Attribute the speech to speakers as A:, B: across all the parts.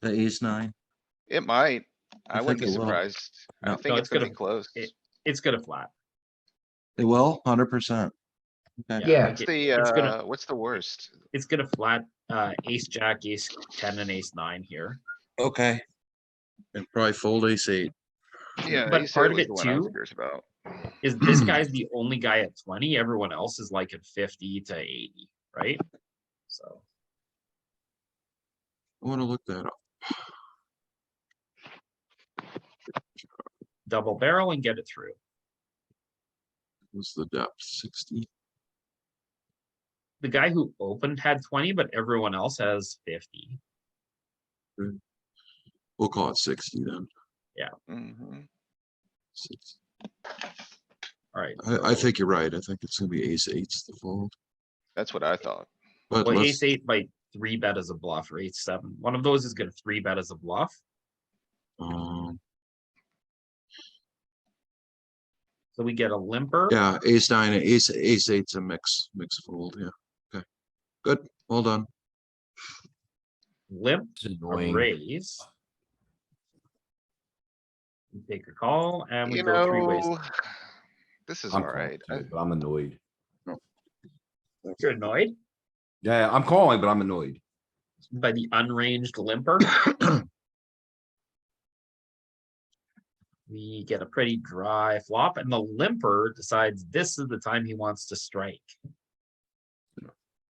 A: the ace nine?
B: It might. I
A: think
B: wouldn't be
A: it will.
B: surprised. I
A: No.
B: think
C: No,
B: it's
C: it's
B: gonna
C: gonna-
B: be close.
C: it- It's gonna flat.
A: It will, hundred percent.
D: Yeah.
C: like
B: What's
C: it-
B: the,
C: it's gonna-
B: uh, what's the worst?
C: It's gonna flat, uh, ace, jack, ace, ten and ace nine here.
A: Okay. And probably fold ace eight.
B: Yeah,
C: but
B: ace
C: part
B: hit
C: of
B: was
C: it
B: the one I was
C: too-
B: curious about.
C: Is this guy's the only guy at twenty? Everyone else is like at fifty to eighty, right? So,
A: I wanna look that up.
C: double barrel and get it through.
A: What's the depth? Sixty?
C: The guy who opened had twenty, but everyone else has fifty.
A: We'll call it sixty then.
B: Mhm.
A: Six-
C: Alright,
A: I, I think you're right. I think it's gonna be ace eight's the fold,
B: That's what I thought.
A: but
C: well,
A: let's,
C: ace eight by three bet as a bluff or ace seven. One of those is gonna three bet as a bluff.
A: um,
C: So we get a limper.
A: yeah, ace nine and ace, ace eight's a mix, mix fold, yeah. Okay, good, well done.
C: limp,
E: It's
C: a
E: annoying.
C: raise. We Take a call and we
B: You
C: go three ways.
B: know, this is
E: I'm
B: alright.
E: calling too, But I'm annoyed.
C: You're annoyed
E: Yeah, I'm calling, but I'm annoyed.
C: by the unranged limper. We get a pretty dry flop and the limper decides this is the time he wants to strike.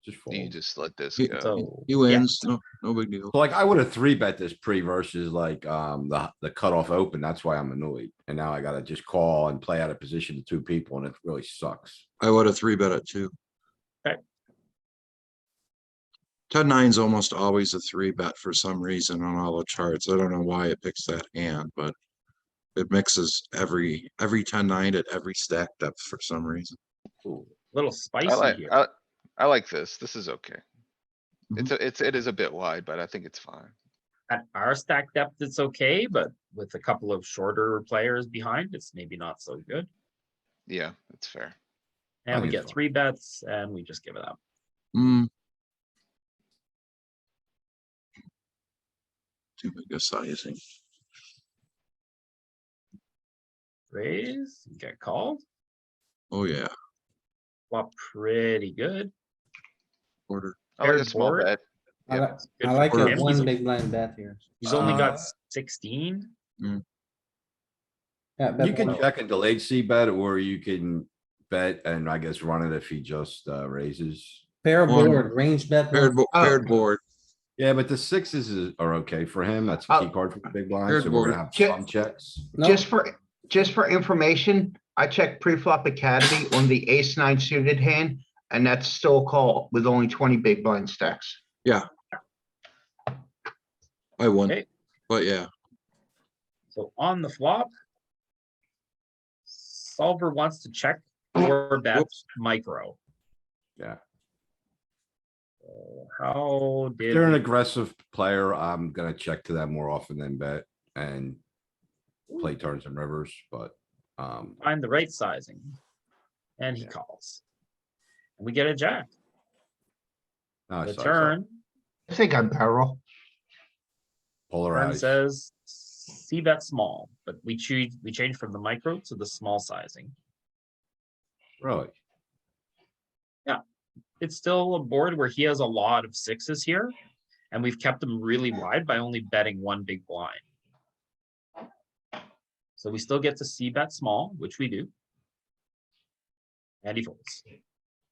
E: Just
B: You
E: fold.
B: just let this
A: You-
B: go.
C: So.
A: He
C: Oh, yeah,
A: wins, no, no big deal.
E: So, Like I would have three bet this pre versus like, um, the, the cutoff open. That's why I'm annoyed. And now I gotta just call and play out of position to two people and it really sucks.
A: I would have three bet it too.
C: Okay.
A: Ten nine's almost always a three bet for some reason on all the charts. I don't know why it picks that hand, but it mixes every, every ten nine at every stack depth for some reason.
C: Little
B: I like,
C: spicy here.
B: I, I like this. This is okay.
A: Mhm.
B: It's, a- it's, it is a bit wide, but I think it's fine.
C: At our stack depth, it's okay, but with a couple of shorter players behind, it's maybe not so good.
B: Yeah, it's fair.
C: And we
E: think it's
C: get
E: fine.
C: three bets and we just give it up.
A: Hmm. Too big a sizing.
C: Raise, get called,
A: Oh, yeah,
C: flop pretty good.
A: quarter.
B: I like a
C: Paired
B: small
C: board.
B: bet.
D: I
B: Yep.
D: like,
C: Good
D: I
C: for
D: like a
C: him.
D: one
C: He's-
D: big blind bet here.
C: He's only got
E: Uh,
C: sixteen.
D: Yeah,
E: You
D: bet
E: can
D: one. oh.
E: check a delayed C bet or you can bet and I guess run it if he just, uh, raises.
D: Pair
A: one.
D: board, range bet.
A: Paired,
D: one.
A: bo-
E: Oh.
A: paired board.
E: Yeah, but the sixes is, are okay for him. That's
D: Uh,
E: a key card for the big blind,
A: Good
E: so we're gonna
A: board.
E: have some checks.
D: No,
F: Just for, just for information, I checked pre-flop academy on the ace nine suited hand, and that's still a call with only twenty big blind stacks.
A: I won,
C: Okay.
A: but yeah,
C: So on the flop. Solver wants to check or bet
A: Whoops.
C: micro.
E: Yeah.
C: So How did,
E: They're an
C: we-
E: aggressive player. I'm gonna check to them more often than bet and play turns and rivers, but, um,
C: find the right sizing? And he
E: Yeah.
C: calls. And We get a jack,
E: no,
C: the
E: it's- it's
C: turn,
F: I think I'm barrel.
C: turn
E: polarized.
C: says, see bet small, but we choose, we change from the micro to the small sizing.
E: Really?
C: It's still a board where he has a lot of sixes here. And we've kept them really wide by only betting one big blind. So we still get to see bet small, which we do. And he folds.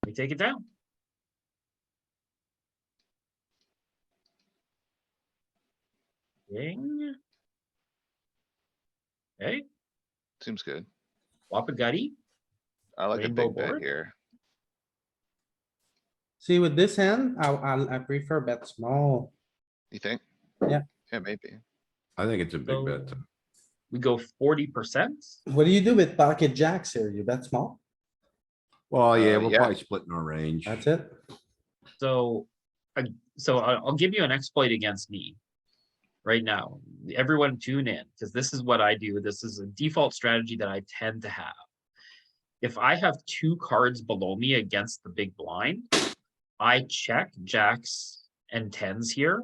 C: We take it down. Ding. Hey,
B: Seems good.
C: flop a gutty.
B: I like a
C: Rainbow
B: big bet
C: board?
B: here.
D: See with this hand, I, I, I prefer bet small.
B: You think?
D: Yeah.
B: Yeah, maybe.
E: I think it's a big bet.
C: So We go forty percent.
D: What do you do with pocket jacks here? You bet small?
E: Well, yeah,
B: Uh,
E: we're
B: yeah.
E: probably splitting our range.
D: That's it?
C: So, I, so I- I'll give you an exploit against me. Right now, everyone tune in, because this is what I do. This is a default strategy that I tend to have. If I have two cards below me against the big blind, I check jacks and tens here